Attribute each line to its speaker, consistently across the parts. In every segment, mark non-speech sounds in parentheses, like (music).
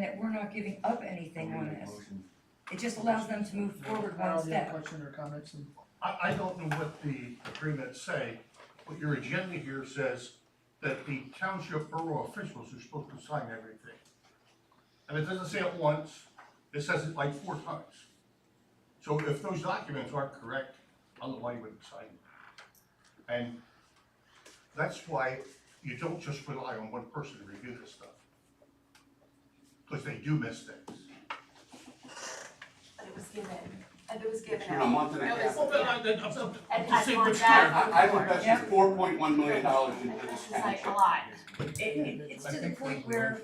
Speaker 1: not giving up anything on this.
Speaker 2: Motion.
Speaker 1: It just allows them to move forward one step.
Speaker 3: Question or comments and?
Speaker 4: I, I don't know what the agreements say, but your agenda here says that the township borough officials are supposed to sign everything. And it doesn't say it once, it says it like four times. So if those documents aren't correct, I don't know why you wouldn't sign them. And that's why you don't just rely on one person to review this stuff. Because they do miss things.
Speaker 5: But it was given, and it was given.
Speaker 2: It's been a month and a
Speaker 5: notice,
Speaker 2: half.
Speaker 4: Well, then,
Speaker 5: yeah.
Speaker 4: I, then, I'm, I'm,
Speaker 5: And
Speaker 4: just
Speaker 5: I've
Speaker 4: saying
Speaker 5: gone
Speaker 4: what's
Speaker 5: back.
Speaker 4: fair.
Speaker 2: I, I would bet
Speaker 1: Yeah.
Speaker 2: you four point one million dollars into
Speaker 5: This
Speaker 2: this
Speaker 5: is like a
Speaker 2: township.
Speaker 5: lot.
Speaker 1: It, it, it's to the point where,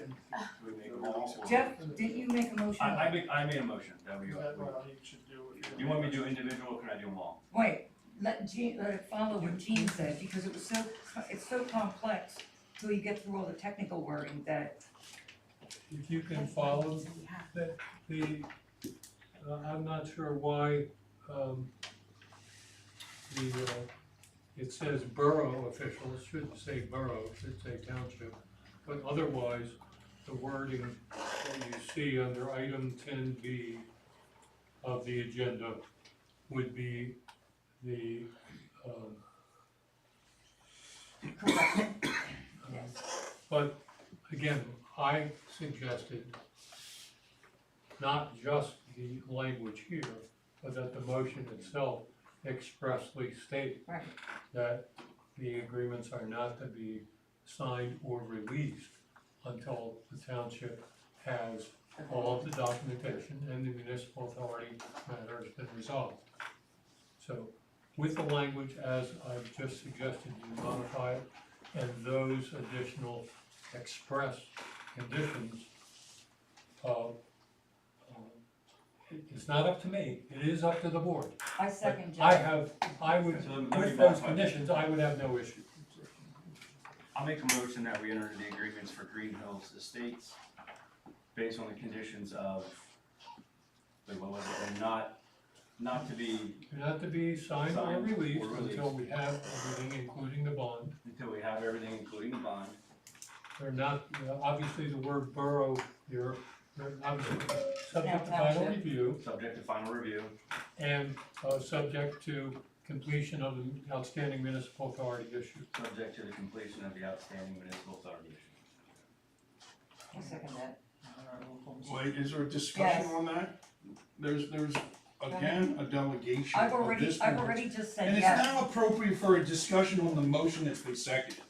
Speaker 1: Jeff, didn't you make a motion?
Speaker 2: I, I made, I made a motion that we,
Speaker 3: Is that what you should do?
Speaker 2: you want me to do individual, or can I do them all?
Speaker 1: Wait, let Gene, let it follow what Gene said, because it was so, co- it's so complex till you get through all the technical wording that,
Speaker 6: If you can follow the, uh, I'm not sure why, um, the, uh, it says borough officials, shouldn't say borough, it should say township. But otherwise, the wording that you see under item ten B of the agenda would be the, um,
Speaker 1: correct, (coughs)
Speaker 6: um,
Speaker 1: yes.
Speaker 6: But again, I suggested not just the language here, but that the motion itself expressly state
Speaker 1: Right.
Speaker 6: that the agreements are not to be signed or released until the township has all of the documentation and the municipal authority matter has been resolved. So with the language as I've just suggested, you modify it, and those additional express conditions, uh, um, it- it's not up to me, it is up to the board.
Speaker 1: I second
Speaker 6: I
Speaker 1: Jeff.
Speaker 6: have, I would,
Speaker 2: So let me
Speaker 6: with
Speaker 2: modify
Speaker 6: those
Speaker 2: it.
Speaker 6: conditions, I would have no issue.
Speaker 2: I'll make a motion that we enter into the agreements for Green Hills Estates based on the conditions of, wait, what was it, and not, not to be,
Speaker 6: Not to be signed or
Speaker 2: Signed or
Speaker 6: released
Speaker 2: released.
Speaker 6: until we have everything, including the bond.
Speaker 2: until we have everything, including the bond.
Speaker 6: They're not, you know, obviously the word borough here, they're obviously subject to
Speaker 1: Now,
Speaker 6: final
Speaker 1: township.
Speaker 6: review
Speaker 2: Subject to final review,
Speaker 6: and, uh, subject to completion of the outstanding municipal authority issue.
Speaker 2: subject to the completion of the outstanding municipal authority issue.
Speaker 1: I second that.
Speaker 7: Wait, is there a discussion
Speaker 1: Yes.
Speaker 7: on that? There's, there's, again, a delegation
Speaker 1: I've
Speaker 7: of
Speaker 1: already,
Speaker 7: this
Speaker 1: I've
Speaker 7: board.
Speaker 1: already just said
Speaker 7: And it's
Speaker 1: yes.
Speaker 7: now appropriate for a discussion on the motion that's been seconded.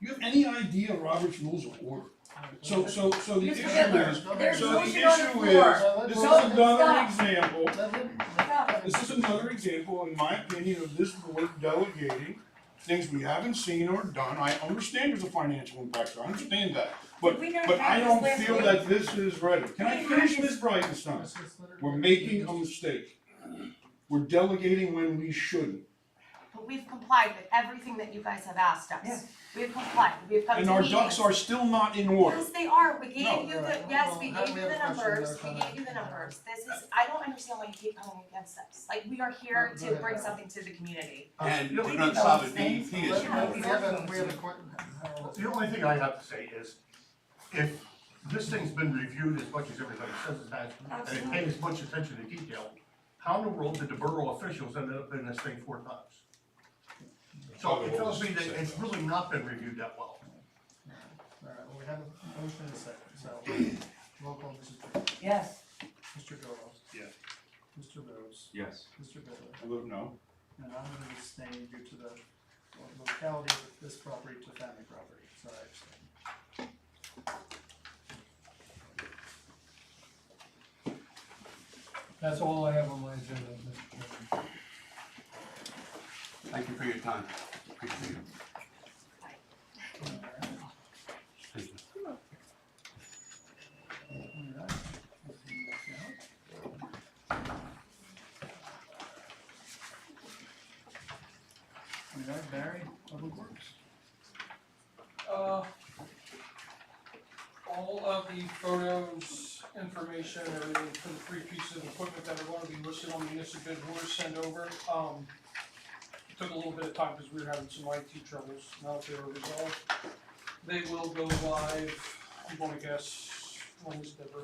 Speaker 7: You have any idea Robert's rules of order? So, so, so the
Speaker 1: Mr.
Speaker 7: issue
Speaker 1: Bittler,
Speaker 7: is,
Speaker 1: there's
Speaker 7: so the
Speaker 1: motion on the
Speaker 7: issue
Speaker 1: floor.
Speaker 7: is, this is
Speaker 1: Don't stop.
Speaker 7: another example,
Speaker 1: Stop.
Speaker 7: this is another example, in my opinion, of this board delegating things we haven't seen or done. I understand there's a financial impact, I understand that. But,
Speaker 1: Did we not
Speaker 7: but I
Speaker 1: have
Speaker 7: don't
Speaker 1: this
Speaker 7: feel
Speaker 1: last
Speaker 7: that this is ready. Can I
Speaker 1: We
Speaker 7: finish,
Speaker 1: have
Speaker 7: Ms. Breitenstein? We're making a mistake. We're delegating when we shouldn't.
Speaker 5: But we've complied with everything that you guys have asked
Speaker 1: Yeah.
Speaker 5: us. We've complied, we've come to
Speaker 7: And our ducks
Speaker 5: meetings.
Speaker 7: are still not in order.
Speaker 5: Yes, they are, we
Speaker 7: No,
Speaker 5: gave you the,
Speaker 3: right.
Speaker 5: yes, we
Speaker 3: Well, how do
Speaker 5: gave
Speaker 3: we
Speaker 5: you the
Speaker 3: have a question
Speaker 5: numbers,
Speaker 3: without
Speaker 5: we
Speaker 3: comment?
Speaker 5: gave you the numbers. This is, I don't understand why you keep coming against us. Like, we are here
Speaker 3: Well, go
Speaker 5: to
Speaker 3: ahead,
Speaker 5: bring
Speaker 3: Howard.
Speaker 5: something to the community.
Speaker 4: And
Speaker 1: we
Speaker 4: the
Speaker 1: can
Speaker 2: solid
Speaker 1: things.
Speaker 2: DEP is
Speaker 1: Yeah,
Speaker 4: in
Speaker 1: we
Speaker 4: order.
Speaker 1: have them.
Speaker 4: only thing I have to say is, if this thing's been reviewed as much as everybody says it has, and it paid as much attention to detail, how in the world did the borough officials end up in this thing four times? So it tells me that it's really not been reviewed that well.
Speaker 3: Alright, well, we have a motion and a second, so, roll call, Mrs. Britton.
Speaker 1: Yes,
Speaker 3: Mr. Gallow.
Speaker 7: Yeah.
Speaker 3: Mr. Rose,
Speaker 2: Yes.
Speaker 3: Mr. Bittler,
Speaker 7: I vote no.
Speaker 3: and I'm gonna abstain due to the locality of this property to family property, so I abstain.
Speaker 6: That's all I have on my agenda, Mr. Chairman.
Speaker 2: Thank you for your time. Appreciate it.
Speaker 3: Alright. Alright, Barry, Public Works.
Speaker 8: Uh, all of the photos, information, everything for the three pieces of equipment that are gonna be listed on the municipal bid were sent over. Um, took a little bit of time because we were having some IT troubles, now that they were resolved. They will go live, I'm gonna guess, Wednesday or